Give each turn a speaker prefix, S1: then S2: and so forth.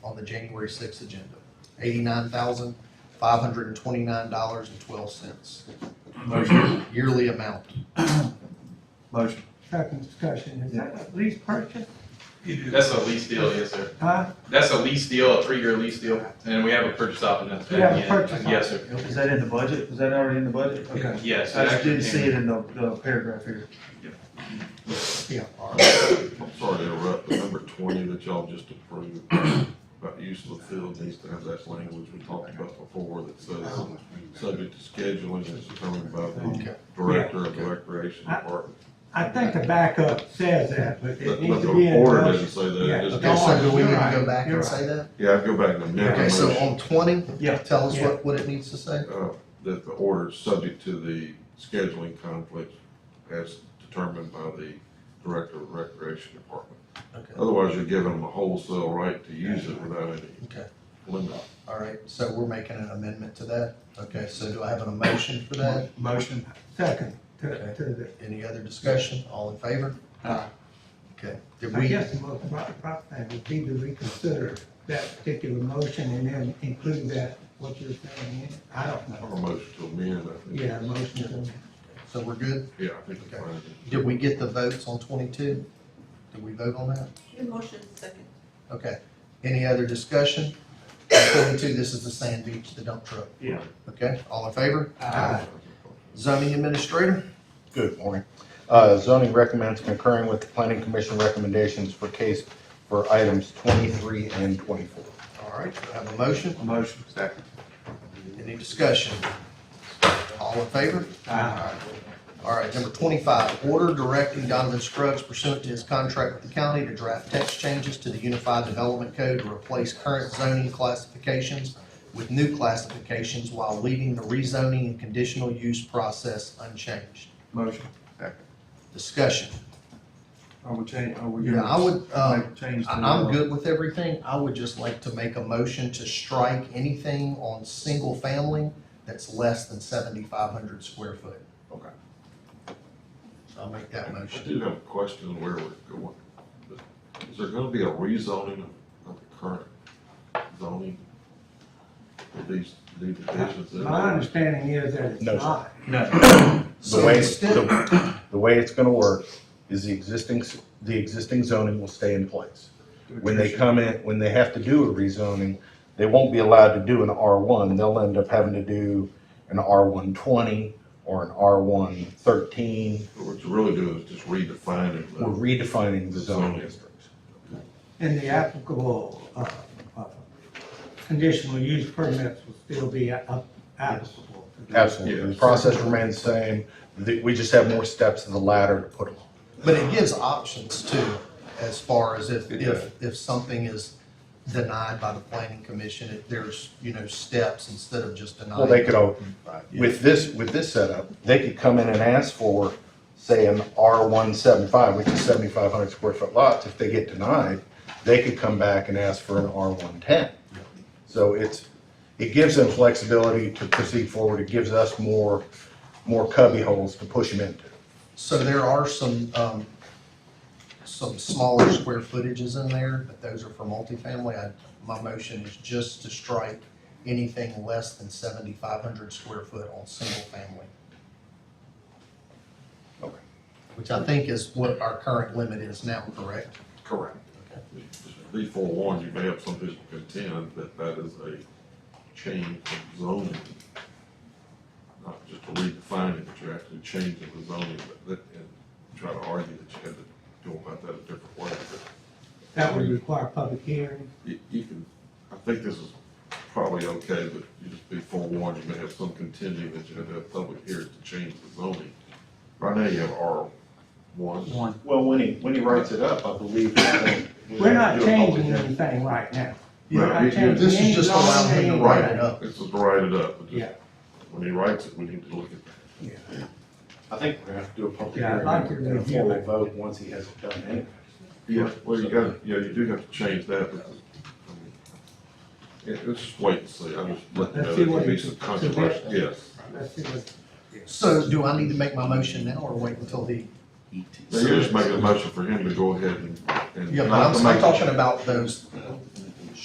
S1: on the January sixth agenda, eighty-nine thousand, five hundred and twenty-nine dollars and twelve cents,
S2: Motion.
S1: yearly amount.
S2: Motion.
S3: Second discussion, is that a lease purchase?
S4: That's a lease deal, yes, sir.
S3: Huh?
S4: That's a lease deal, a three-year lease deal, and we have a purchase option at
S3: We
S4: the
S3: have a
S4: end.
S3: purchase
S4: Yes, sir.
S2: Is that in the budget? Is that already in the budget? Okay.
S4: Yes.
S2: I
S4: it
S2: just
S4: actually
S2: didn't see
S4: came-
S2: it in the, the paragraph here.
S1: Yeah, all right.
S5: I'm sorry to interrupt, but number twenty that y'all just approved about use of the field needs to have that language we talked about before that says, subject to scheduling as determined by the
S1: Okay.
S5: director of the recreation department.
S3: I think the backup says that, but
S5: But
S3: it
S5: but
S3: needs
S5: the
S3: to be in the
S5: order doesn't
S3: motion.
S5: say
S3: Yeah,
S5: that, it just
S1: Okay, so
S5: goes,
S1: do we need to
S3: You're
S1: go
S3: right,
S1: back
S3: you're
S1: and say that?
S5: yeah, I'd go back to the
S1: Okay,
S5: next
S1: so
S5: motion.
S1: on twenty,
S2: Yeah.
S1: tell us
S3: Yeah.
S1: what, what it needs to say?
S5: Uh, that the order is subject to the scheduling conflict as determined by the director of recreation department.
S1: Okay,
S5: Otherwise, you're giving them a wholesale right to use it without any
S1: Okay.
S5: limit.
S1: all right, so we're making an amendment to that. Okay, so do I have an emotion for that?
S2: Motion.
S3: Second to,
S1: Okay.
S3: to the,
S1: Any other discussion? All in favor?
S2: Aye.
S1: Okay, did
S3: I
S1: we,
S3: guess the most proper, proper thing would be to reconsider that particular motion and then include that, what you're saying in. it. I don't know.
S5: Or motion to amend, I think.
S3: Yeah, motion to,
S1: so we're good?
S5: Yeah, I think it's fine.
S1: Did we get the votes on twenty-two? Did we vote on that?
S6: Your motion is second.
S1: Okay, any other discussion? On Twenty-two, this is the sand beach, the dump truck.
S2: Yeah.
S1: Okay, all in favor?
S3: Aye.
S1: Zoning administrator?
S7: Good morning. Uh, Zoning recommends concurring with the planning commission recommendations for case for items 23 and 24.
S1: All right, do I have a motion?
S2: Motion. Second.
S1: Any discussion? All in favor?
S2: Aye.
S1: All right, number twenty-five, order directing Donovan Scruggs pursuant to his contract with the county to draft text changes to the Unified Development Code to replace current zoning classifications with new classifications while leaving the rezoning and conditional use process unchanged.
S2: Motion.
S1: Discussion.
S2: Are we changing, are we?
S1: Yeah, I would, um,
S2: Change.
S1: I- I'm good with everything. I would just like to make a motion to strike anything on single family that's less than seventy-five hundred square foot.
S2: Okay.
S1: I'll make that
S5: I
S1: motion.
S5: do have a question where we're going. Is there gonna be a rezoning of- of the current zoning? of these, new divisions? in
S3: my
S5: there?
S3: understanding is that it's
S7: No, sir.
S3: not.
S2: No.
S7: The
S1: So
S7: way,
S1: instead-
S7: the the way it's going to work is the existing, s- the existing zoning will stay in place. When they come in, when they have to do a rezoning, they won't be allowed to do an R1. They'll end up having to do an R120 or an R113.
S5: What you're really doing is just redefining
S7: We're
S5: the
S7: redefining the zoning districts.
S3: And the applicable, uh, uh, conditional use permits will still be up- applicable.
S7: Absolutely. The process remains the same. The- We just have more steps of the ladder to put them on.
S1: But it gives options too, as far as if,
S5: It does.
S1: if, if something is denied by the planning commission, if there's, you know, steps instead of just denying.
S7: Well, they could, all-
S5: Right, yeah.
S7: with this, with this setup, they could come in and ask for, say, an R one seven five, which is seventy-five hundred square foot lots. If they get denied, they could come back and ask for an R one ten. So it's, it gives them flexibility to proceed forward. It gives us more, more cubby holes to push them into.
S1: So there are some, um, some smaller square footages in there, but those are for multifamily. I, my motion is just to strike anything less than seventy-five hundred square foot on single family.
S7: Okay.
S1: Which I think is what our current limit is now, correct?
S5: Correct. Be forewarned, you may have some people contend that that is a change of zoning. Not just a redefining, but you're actually changing the zoning, but that, and try to argue that you had to go about that a different way. But
S3: That would require public hearing.
S5: you, you can, I think this is probably okay, but you just be forewarned, you may have some contending that you had to have public hearings to change the zoning. Right now, you have R one.
S2: One.
S7: Well, when he, when he writes it up, I believe.
S3: We're not changing anything right now. We're
S5: Right,
S3: not
S5: you-
S3: changing
S1: This
S3: any
S1: is just allowing him
S3: zoning,
S1: to write
S3: anything.
S1: it up.
S5: This is to write it up, but just-
S3: Yeah.
S5: when he writes it, we need to look at that.
S7: I think we're gonna have to do a public
S3: Yeah, I'd
S7: hearing
S3: like to
S7: and a
S3: review it.
S7: formal vote once he has it done anyway.
S5: Yeah, well, you got, yeah, you do have to change that, but, I mean, yeah, let's just wait and see, I'm just letting you
S3: Let's
S5: know,
S3: see
S5: there
S3: what
S5: could be
S3: he-
S5: some controversy, yes.
S3: Let's see what-
S1: So do I need to make my motion now or wait until the?
S5: Now, you're just making a motion for him to go ahead and, and.
S1: Yeah, but
S5: not
S1: I'm,
S5: to
S1: I'm
S5: make-
S1: talking about those